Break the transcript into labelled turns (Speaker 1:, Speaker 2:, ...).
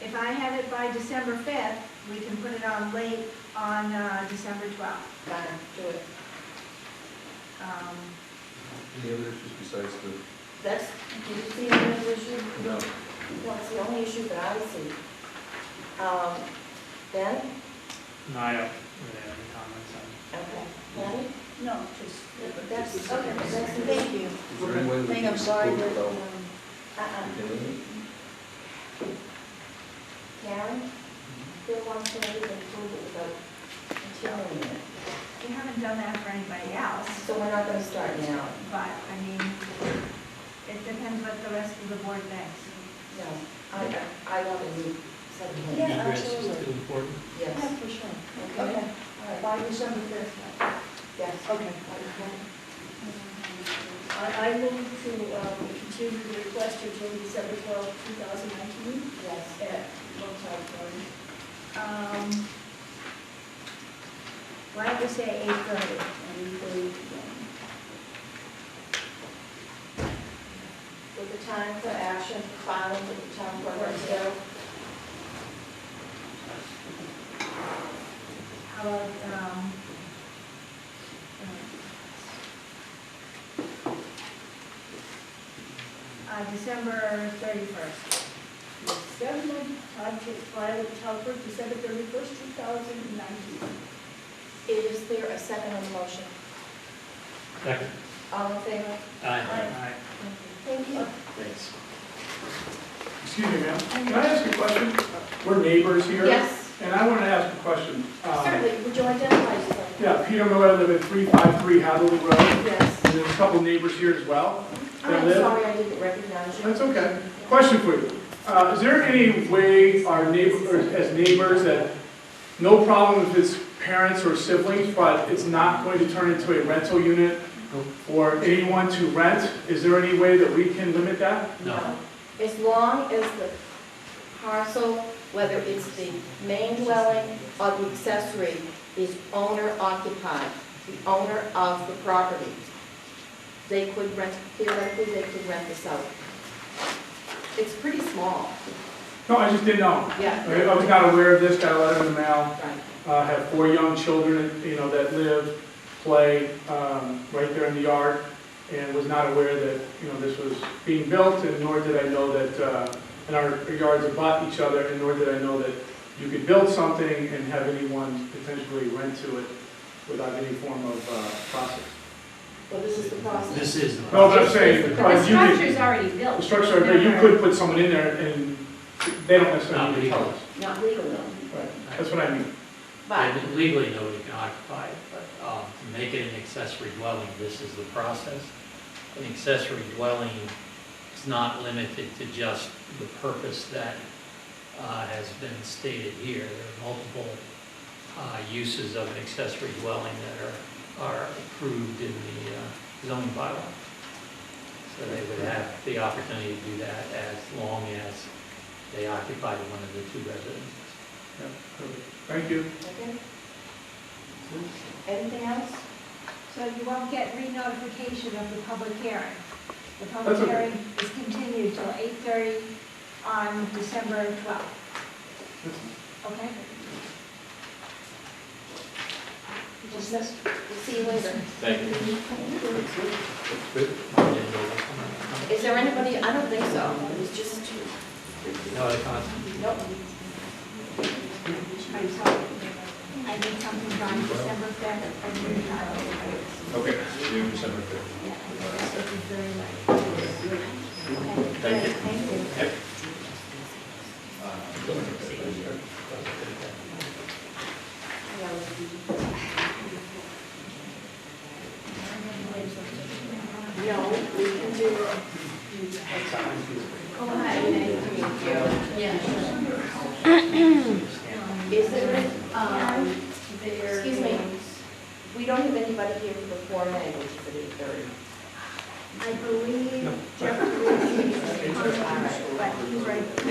Speaker 1: If I have it by December 5th, we can put it on late on uh, December 12th.
Speaker 2: Donna, do it.
Speaker 1: Um,
Speaker 3: Any other issues besides the,
Speaker 2: That's, did you see any other issue?
Speaker 3: no,
Speaker 2: No, it's the only issue that I see. Um, Ben?
Speaker 4: No, I don't really have any oh, comments on
Speaker 2: Okay. Patty?
Speaker 5: No, just.
Speaker 2: That's, okay, that's the
Speaker 1: Thank
Speaker 2: thing.
Speaker 1: you.
Speaker 3: is there any way we
Speaker 5: Thing,
Speaker 3: can
Speaker 5: I'm
Speaker 3: just
Speaker 5: sorry,
Speaker 3: vote
Speaker 5: but,
Speaker 3: without
Speaker 5: um,
Speaker 1: uh,
Speaker 2: Uh-uh.
Speaker 3: doing
Speaker 2: Karen?
Speaker 5: Mm-hmm.
Speaker 2: Bill wants to know if we can prove it without continuing it.
Speaker 1: We haven't done that for anybody else,
Speaker 2: So we're not gonna start now?
Speaker 1: but, I mean, it depends what the rest of the board thinks.
Speaker 2: No. I, I want to do something.
Speaker 5: Yeah,
Speaker 4: it. Egress is
Speaker 5: absolutely.
Speaker 4: still important.
Speaker 5: Yeah,
Speaker 2: Yes.
Speaker 5: for sure.
Speaker 2: Okay.
Speaker 5: Okay, all right, by December fifth.
Speaker 2: Yes.
Speaker 5: Okay.
Speaker 2: Okay.
Speaker 5: I, I move to, um, continue the request until December twelfth, two thousand nineteen,
Speaker 2: Yes.
Speaker 5: at one time, sorry.
Speaker 1: Um, Why don't we say 8:30?
Speaker 5: And we, um,
Speaker 2: With the time for action filing with the town clerk herself.
Speaker 1: How about, um, uh, December thirty-first?
Speaker 5: December, time to file with town clerk, December thirty-first, two thousand nineteen.
Speaker 2: Is there a second on the motion?
Speaker 4: Second.
Speaker 2: All in favor?
Speaker 4: Aye.
Speaker 2: Thank you.
Speaker 4: Thanks.
Speaker 6: Excuse me, ma'am, can I ask a question? We're neighbors here.
Speaker 2: Yes,
Speaker 6: And I want to ask a question. Um,
Speaker 2: certainly, would you identify yourself?
Speaker 6: Yeah, Peter Miller, I live at 353 Hadley Road, and
Speaker 2: Yes.
Speaker 6: there's a couple neighbors here as well.
Speaker 2: I'm sorry I didn't recognize you.
Speaker 6: That's okay. Question for you. Uh, Is there any way our neighbors, as neighbors, that no problem if it's parents or siblings, but it's not going to turn into a rental unit or anyone to rent? Is there any way that we can limit that?
Speaker 4: No.
Speaker 2: As long as the parcel, whether it's the main dwelling or the accessory, is owner occupied, the owner of the property, they could rent, theoretically, they could rent this out. It's pretty small,
Speaker 6: No, I just didn't know.
Speaker 2: yeah.
Speaker 6: I I was not aware of this, got a letter in the mail.
Speaker 2: Right.
Speaker 6: uh, have four young children, you know, that live, play, um, right there in the yard, and was not aware that, you know, this was being built, and nor did I know that, uh, and our yards abut each other, and nor did I know that you could build something and have anyone potentially rent to it without any form of, uh, process.
Speaker 2: Well, this is the process.
Speaker 4: This is.
Speaker 6: No, but I'm saying,
Speaker 2: But
Speaker 6: but you could,
Speaker 5: already built.
Speaker 6: the structure, but you could put someone in there, and they don't necessarily need to tell us.
Speaker 2: Not legal, though.
Speaker 6: Right, that's what I mean.
Speaker 2: But,
Speaker 4: And Legally, nobody can occupy it, but um, to make it an accessory dwelling, this is the process. An accessory dwelling is not limited to just the purpose that uh, has been stated here. There are multiple uh, uses of an accessory dwelling that are, are approved in the uh, zoning bylaw. So they would have the opportunity to do that as long as they occupy one of the two residences.
Speaker 6: Thank you.
Speaker 2: okay. Anything else?
Speaker 1: So you won't get re-notification of the public hearing. The
Speaker 6: That's
Speaker 1: public
Speaker 6: okay.
Speaker 1: hearing is continued till eight-thirty on December twelfth, okay?
Speaker 2: Just this. See you later.
Speaker 4: Thank you.
Speaker 3: Good.
Speaker 2: Is there anybody, I don't think so, it was just,
Speaker 4: No other comments?
Speaker 2: nope.
Speaker 1: I'm sorry. I need something on December fifth, I need to,
Speaker 3: Okay, do December fifth.
Speaker 1: yeah, I think this is very late. Okay,
Speaker 3: Thank you.
Speaker 1: great, Thank you.
Speaker 3: Uh,
Speaker 2: No, we can do it.
Speaker 1: Go ahead.
Speaker 2: Is there, um, excuse me, we don't have anybody here for the Form A, which is at eight thirty.
Speaker 1: I believe Jeff Ruiz is on, but he's right um,